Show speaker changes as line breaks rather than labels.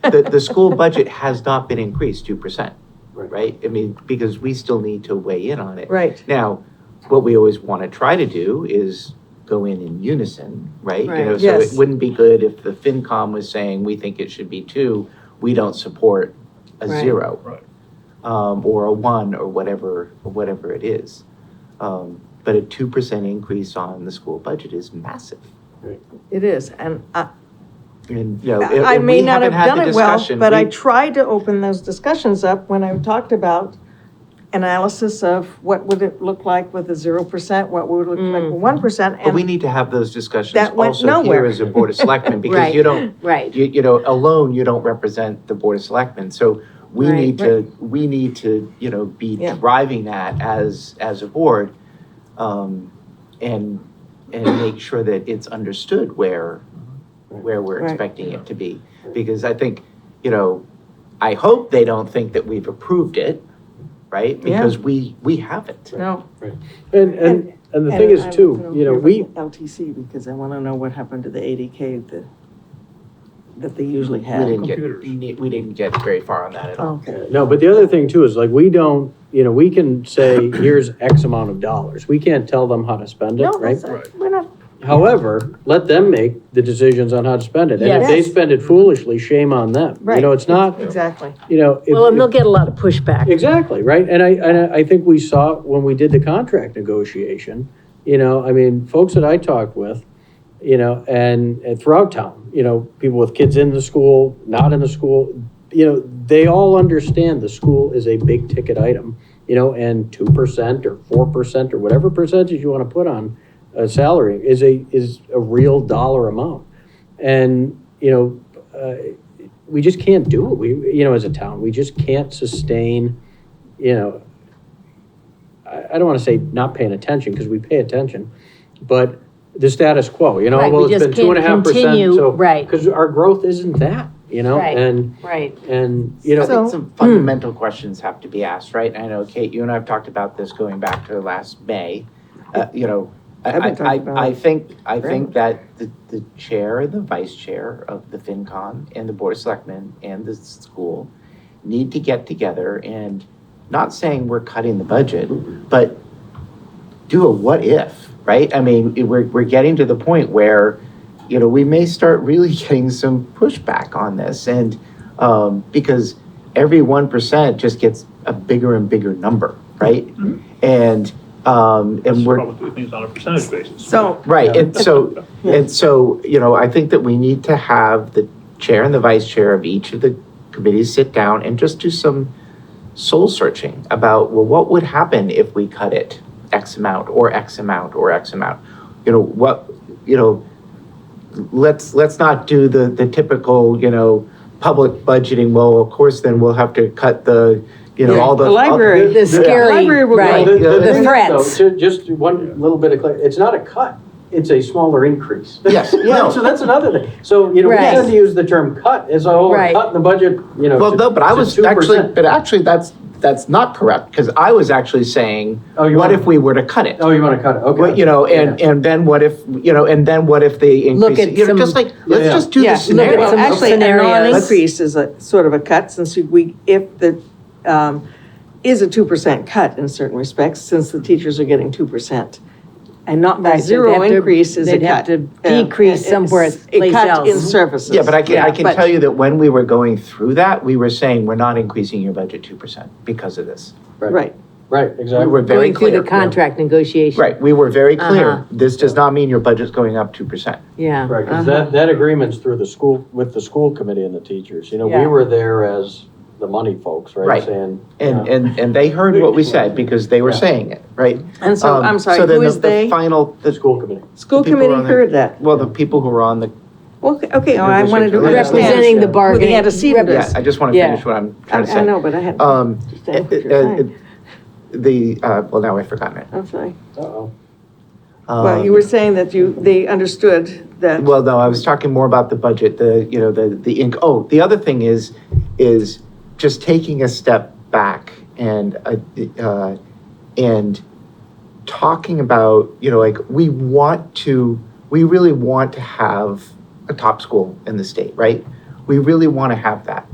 the, the school budget has not been increased two percent,
Right.
right? I mean, because we still need to weigh in on it.
Right,
Now, what we always want to try to do is go in in unison, right? You know,
Right.
so it
Yes.
wouldn't be good if the FinCom was saying, we think it should be two, we don't support a
Right.
zero.
Right.
Um, or a one, or whatever, or whatever it is. Um, but a two percent increase on the school budget is massive.
it is, and I,
And, you know, if-
I
if
may
we
not have
haven't had the
done it well,
discussion,
but I
we-
tried to open those discussions up when I talked about analysis of what would it look like with a zero percent, what would it look like
Mm.
with one percent,
But we
and,
need to have those discussions
That went
also here
nowhere.
as a Board of Selectmen, because you
Right.
don't,
Right,
you, you know, alone, you don't represent the Board of Selectmen. So we
Right.
need to, we need to, you know, be
Yeah.
driving that as, as a board. um, And, and make sure that it's understood where, where we're
Right.
expecting it to be. Because I think, you know, I hope they don't think that we've approved it, right?
Yeah.
Because we, we haven't.
no.
And, and, and the thing is
And I
too,
wasn't
you know,
okay with
we,
LTC, because I wanna know what happened to the eighty K that, that they usually
We
have.
didn't
Computers.
get, we didn't get very far on that at all.
Okay,
no, but the other thing too is like, we don't, you know, we can say, here's X amount of dollars. We can't tell them how to spend it,
no,
right?
that's,
Right.
we're not,
However, let them make the decisions on how to spend it. And if they
Yes.
spend it foolishly, shame on them. You
right.
know, it's not,
Exactly,
you know. if-
well, and they'll get a lot of pushback.
Exactly, right? And I, and I- I think we saw when we did the contract negotiation, you know, I mean, folks that I talked with, you know, and, and throughout town, you know, people with kids in the school, not in the school, you know, they all understand the school is a big ticket item, you know, and two percent or four percent or whatever percentage you want to put on a salary is a, is a real dollar amount. And, you know, uh, we just can't do it. We, you know, as a town, we just can't sustain, you know, I, I don't want to say not paying attention because we pay attention, but the status quo, you know,
Right, we
well, it's
just
been two and a
can't
half percent.
continue,
so-
right.
Because our growth isn't that, you know,
Right.
and,
Right.
and, you
I
know,
think
hmm.
some fundamental questions have to be asked, right? I know, Kate, you and I have talked about this going back to last May. Uh, You know, I,
I've been
I,
talking about
I- I
it
think, I
very
think
much.
that the, the chair and the vice chair of the FinCon and the Board of Selectmen and the school need to get together and, not saying we're cutting the budget, but do a what if, right? I mean, it- we're, we're getting to the point where, you know, we may start really getting some pushback on this and, um, because every one percent just gets a bigger and bigger number, right? And, um, and we're,
Probably do things on a percentage basis.
so,
Right, and so, and so, you know, I think that we need to have the chair and the vice chair of each of the committees sit down and just do some soul searching about, well, what would happen if we cut it X amount or X amount or X amount? You know, what, you know, let's, let's not do the, the typical, you know, public budgeting, well, of course, then we'll have to cut the, you know, all the.
The library.
all-
The scary,
Library will go
right,
The- the
the
thing is,
threats.
though, ju- Just one little bit of clarity, it's not a cut, it's a smaller increase.
Yes, no.
So that's another thing. So, you know, we
Right.
tend to use the term cut as a whole,
Right.
cut in the budget, you know.
Well,
to-
no, but I
to
was
2%.
actually, but actually, that's, that's not correct, because I was actually saying,
Oh, you
what
want-
if we were to cut it?
Oh, you want to cut it, okay.
But, you know, and, and then what if, you know, and then what if they
Look
increase, it?
at
you know,
some-
just like,
Yeah.
let's just do
yeah,
the
no,
scenario.
some
well, actually, a
scenarios.
non-increase is a, sort of a cut, since we, if the, um, is a two percent cut in certain respects, since the teachers are getting two percent. And not
Right,
by
they'd
zero
have to-
increase is a
they'd
cut.
have to
Yeah,
decrease
it's
somewhere
A
place
cut in
else.
services.
Yeah, but I can, I
Yeah,
can
but-
tell you that when we were going through that, we were saying, we're not increasing your budget two percent because of this.
Right,
Right,
We
exactly.
were very
Going through
clear.
the contract negotiation.
Right, we were very
Uh-huh.
clear, this does not mean your budget's going up two percent.
Yeah.
Right, 'cause
Uh-huh.
that, that agreement's through the school, with the school committee and the teachers. You know,
Yeah.
we were there as the money folks, right?
Right.
Saying, uh,
And,
yeah.
and, and they heard what we said because they were
Yeah.
saying it, right?
and so,
Um,
I'm sorry,
so then
who
the-
is they?
The final,
The
the
school committee.
School
people
committee
on there.
heard that.
Well, the people who were on the,
Well, Okay, okay, oh, I wanted to
Representing
understand.
Representing the
Yeah.
Who
bargaining.
the antecedent
rep-
yeah,
is.
I just want to
Yeah.
finish what I'm
I
trying to say.
I know, but I had.
Um,
understand what
it-
you're
it-
saying.
The, uh, well, now I've forgotten it.
I'm sorry.
Uh-oh.
Well, you
Um,
were saying that you, they understood that.
Well, no, I was talking more about the budget, the, you know, the, the ink. Oh, the other thing is, is just taking a step back and, uh, uh, and talking about, you know, like, we want to, we really want to have a top school in the state, right? we really want to have that.